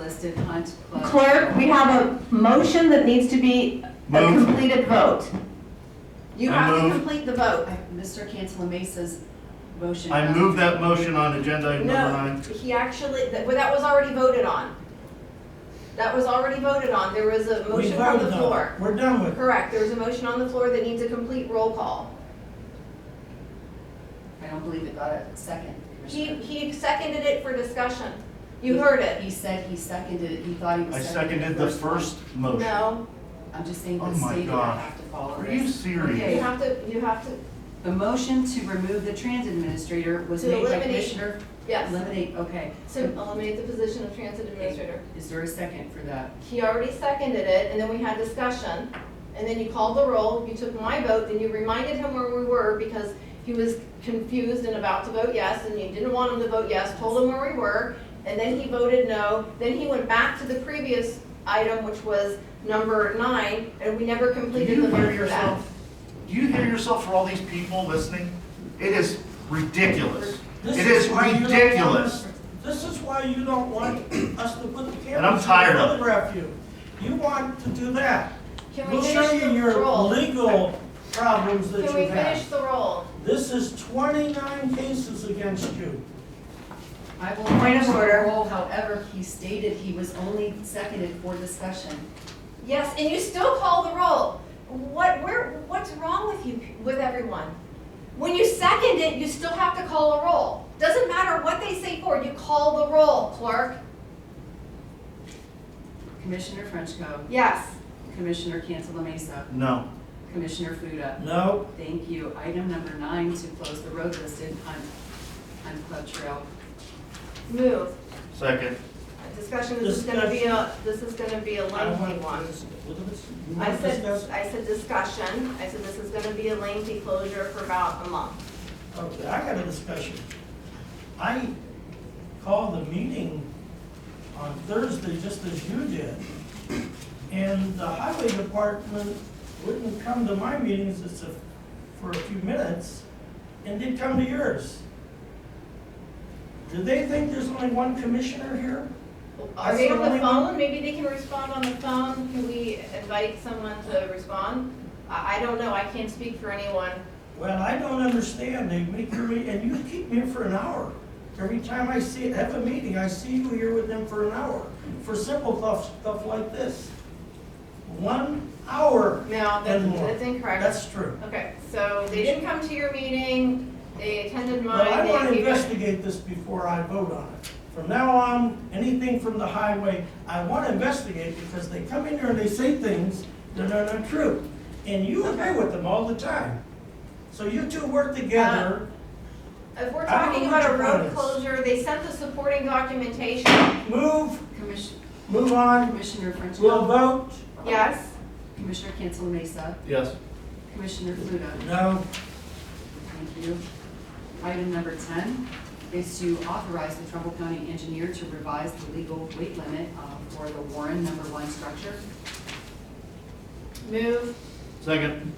listed, Hunt, Club. Clerk, we have a motion that needs to be a Move. completed vote. You I have to move- complete the vote. I- Mr. Cantala Mesa's motion. I move that motion on agenda item number No, nine. he actually, that, well, that was already voted on. That was already voted on. There was a We motion on voted the on it. floor. We're done with it. Correct, there was a motion on the floor that needs a complete roll call. I don't believe it got a second, He, Commissioner. he seconded it for discussion. You heard it. He said he seconded it, he thought he was. I seconded the first motion. No, I'm just saying Oh the my statement, I gosh. have to follow Are you this. you serious? have to, you have to, The motion to remove the transit administrator was To made by eliminate- Commissioner. yes. Eliminate, okay. To eliminate the position of transit administrator. Is there a second for that? He already seconded it, and then we had discussion, and then you called the roll, you took my vote, then you reminded him where we were because he was confused and about to vote yes, and you didn't want him to vote yes, told him where we were, and then he voted no, then he went back to the previous item, which was number nine, and we never Do completed you the vote hear for that. yourself? Do you hear yourself for all these people listening? It is ridiculous. This It is why you don't want ridiculous. us- This is why you don't want us to put the cameras. I'm tired of it. and Photograph you. You want to do that. Can we We'll show finish you the your roll? legal problems that Can we you finish have. the roll? This is twenty-nine cases against you. I will Point point of the order. roll, however, he stated he was only seconded for discussion. Yes, and you still call the roll. What, where, what's wrong with you, with everyone? When you second it, you still have to call a roll. Doesn't matter what they say for, you call the roll, clerk. Commissioner Frenchco, Yes. Commissioner Cantala Mesa, No. Commissioner Fuda. No, Thank you. Item number nine, to close the road listed on, on Club Trail. Move. Second. Discussion, this is gonna be a, this is gonna be a I don't lengthy one. want to. What is it? You I want to said, discuss? I said discussion. I said this is gonna be a lengthy closure for about a month. Okay, I got a discussion. I called the meeting on Thursday, just as you did, and the highway department wouldn't come to my meetings just a- for a few minutes, and they'd come to yours. Do they think there's only one commissioner here? Are they on the That's the only one? phone? Maybe they can respond on the phone. Can we invite someone to respond? I, I don't know. I can't speak for anyone. Well, I don't understand, they make your, meet- and you keep me here for an hour. Every time I see, have a meeting, I see you here with them for an hour, for simple stuff, stuff like this. One hour, No, that's, And more. that's incorrect. that's true. Okay, so they didn't come to your meeting, they attended But I mine, want to they gave it. investigate this before I vote on it. From now on, anything from the highway, I want to investigate because they come in here and they say things that are not true. And you agree with them all the time. So you two work together, If we're I don't talking know what about a your road point is. closure, they sent the supporting documentation, move, Commission, move on, Commissioner We'll Frenchco, vote yes? Commissioner Cantala Mesa, Yes. Commissioner Fuda. no. Thank you. Item number ten is to authorize the Trumbull County Engineer to revise the legal weight limit uh, for the Warren Number One structure. Move, Second.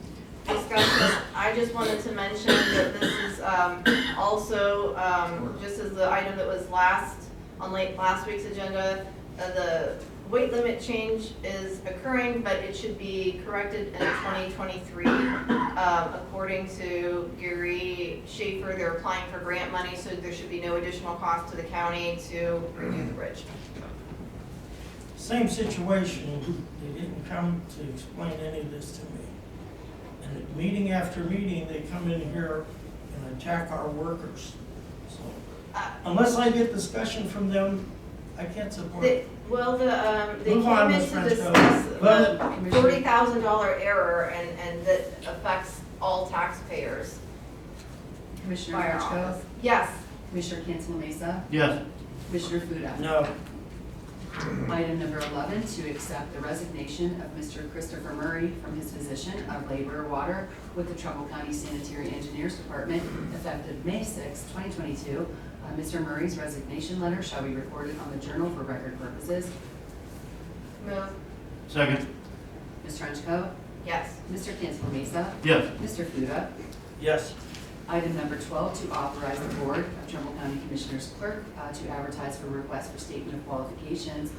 discussion. I just wanted to mention that this is, um, also, um, just as the item that was last, on late, last week's agenda, uh, the weight limit change is occurring, but it should be corrected in twenty twenty-three. Um, according to Gary Schaefer, they're applying for grant money, so there should be no additional cost to the county to redo the bridge. Same situation, they didn't come to explain any of this to me. And at meeting after meeting, they come in here and attack our workers. So Uh, Unless I get discussion from them, I can't support They- it. Well, the, um, they Move on, came in Ms. to Frenchco. discuss Vote. the forty thousand dollar error and, and that affects all taxpayers Commissioner by our Frenchco, office. Yes, Commissioner Cantala Mesa, Yes. Commissioner Fuda. No, Item number eleven, to accept the resignation of Mr. Christopher Murray from his position of labor water with the Trumbull County Sanitary Engineers Department effective May 6, twenty twenty-two. Mr. Murray's resignation letter shall be recorded on the journal for record purposes. move, Second. Ms. Frenchco. yes. Mr. Cancel Mesa. Yes. Mr. Fuda. yes, Item number 12, to authorize the Board of Trumbull County Commissioners Clerk uh, to advertise for requests for statement of qualifications